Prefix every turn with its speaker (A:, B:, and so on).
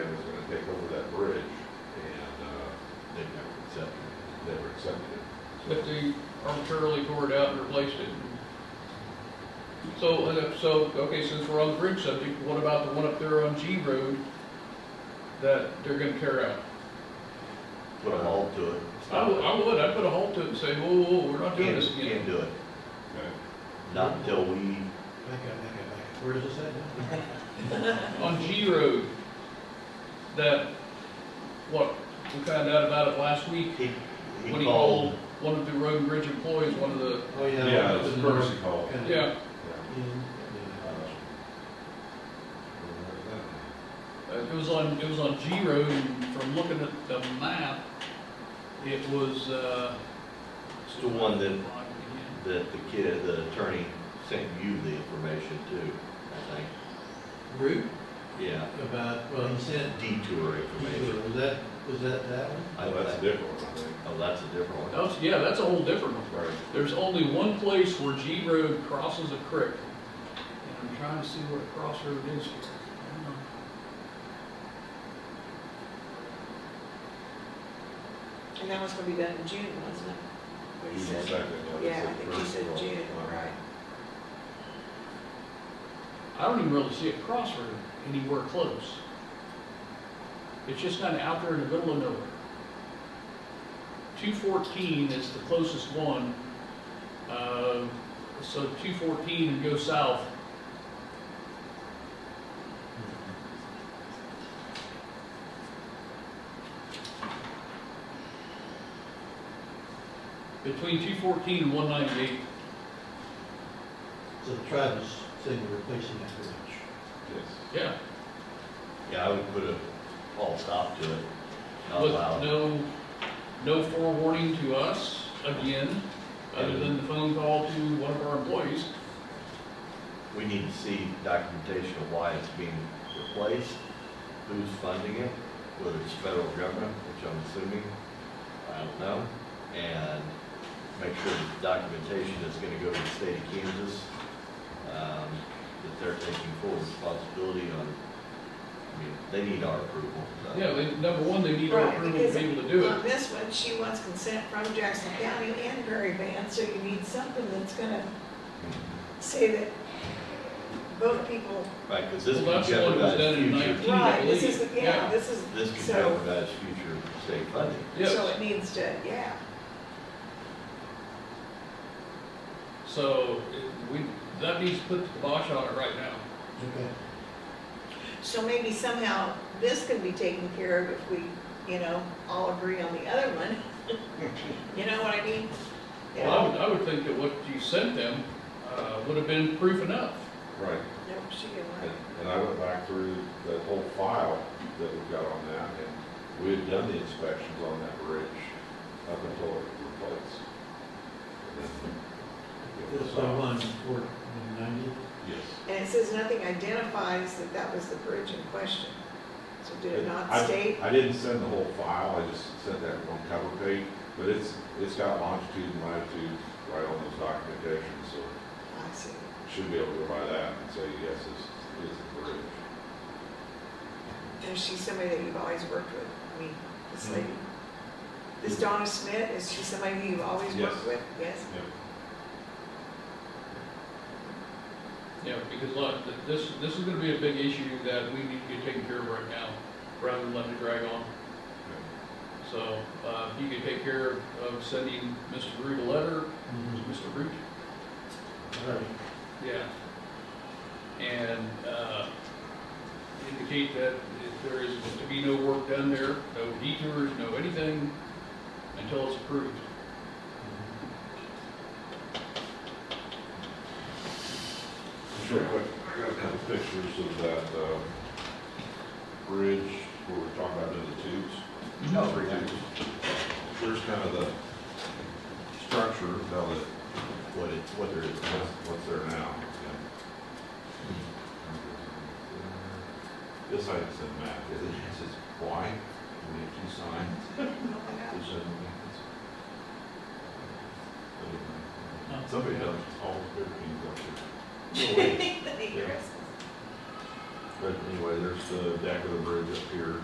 A: uh,
B: arbitrarily tore it out and replaced it. So, uh, so, okay, since we're on the bridge subject, what about the one up there on G Road that they're gonna tear out?
C: Put a halt to it.
B: I would, I would, I'd put a halt to it and say, whoa, whoa, whoa, we're not doing
C: Can't,
B: this
C: can't
B: again.
C: do it. Not until we,
D: Back up, back up, back up. Where does it say?
B: On G Road, that, what, we found out about it last week,
C: he,
B: when
C: he
B: he called
C: called,
B: one of the road and bridge employees, one of the,
D: Oh, yeah.
A: Yeah,
D: it's
A: it's
D: in
A: courtesy call.
D: North-
B: yeah,
C: uh,
D: Yeah.
B: Uh, It was on, it was on G Road, and from looking at the map, it was, uh.
C: It's the one that- that the kid, the attorney sent you the information too, I think.
D: Route
C: Yeah,
D: about, well, he sent,
C: detour
D: was
C: information.
D: that, was that that one?
C: I
A: Well, that's a
C: think.
A: different one, I think.
C: Oh, that's a different one.
B: That's, yeah, that's a whole different one.
A: Right.
B: There's only one place where G Road crosses a creek. And I'm trying to see where the crossroad is here. Hang on.
E: And that was gonna be done in June, wasn't it? What
A: June
E: you said?
A: second, yeah.
E: Yeah, I think you said June, right.
B: I don't even really see a crossroad anywhere close. It's just kind of out there in the middle of nowhere. Two fourteen is the closest one. Uh, so two fourteen and go south.
A: Mm-hmm.
B: Between two fourteen and one ninety-eight.
D: So Travis said you're replacing that bridge.
A: Yes.
B: Yeah.
C: Yeah, I would put a halt stop to it. Not
B: with
C: allowed.
B: no, no forewarning to us, again, other than the phone call to one of our employees.
C: We need to see documentation of why it's being replaced, who's funding it, whether it's federal government, which I'm assuming, I don't know, and make sure the documentation is gonna go to the state of Kansas, um, that they're taking full responsibility on, I mean, they need our approval. so.
B: Yeah, they, number one, they need our
E: Right,
B: approval to
E: because
B: be able to do
E: On
B: it.
E: this one, she wants consent from Jackson County and Prairie Band, so you need something that's gonna say that both people,
C: Right, because this
B: Well, that's
C: could
B: the one that was
C: jeopardize
B: done in
C: future,
B: Do you
E: right, this
B: believe?
E: is, the yeah,
B: Yeah.
E: this is,
C: this could
E: so,
C: jeopardize future state funding.
E: so
B: Yes,
E: it needs to, yeah.
B: so it- we, that needs to put the kibosh on it right now.
D: Okay.
E: So maybe somehow this can be taken care of if we, you know, all agree on the other one. You know what I mean? You
B: Well, I
E: know,
B: would, I would think that what you sent them, uh, would have been proof enough.
A: Right,
E: no, she didn't like
A: and,
E: it.
A: and I went back through the whole file that we've got on that, and we had done the inspections on that bridge up until it was replaced. And then it
D: This
A: was
D: one,
A: out.
D: one, four, ninety.
A: Yes.
E: And it says nothing identifies that that was the bridge in question. So did it not
A: I-
E: state?
A: I didn't send the whole file, I just sent that one cover page, but it's, it's got longitude and latitude right on those documentations, so
E: I see.
A: should be able to go by that and say, yes, this is the bridge.
E: And she's somebody that you've always worked with, I mean, this
A: Hmm.
E: lady. This Donna Smith, is she somebody who you've always
A: Yes.
E: worked with? Yes?
B: Yeah, because look, th- this, this is gonna be a big issue that we need to get taken care of right now, rather than letting it drag on. So, uh, you could take care of- of sending Mr. Root a letter,
A: Mm-hmm.
D: Mhm.
B: Mr. Root,
D: All right.
B: Yeah. And uh, indicate that if there is to be no work done there, no detours, no anything, until it's approved.
A: Mm-hmm. Sure, quick, I got a couple pictures of that, uh, bridge where we're talking about doing the tubes.
B: Oh,
C: No, for example.
A: Here's kind of the structure, now that
C: What it, what there is.
A: what's, what's there now. This I just said map, it is, it's white, we have two signs,
E: Yeah.
A: which doesn't make sense. Somebody does all their things up here. No way. But anyway, there's the deck of the bridge up here.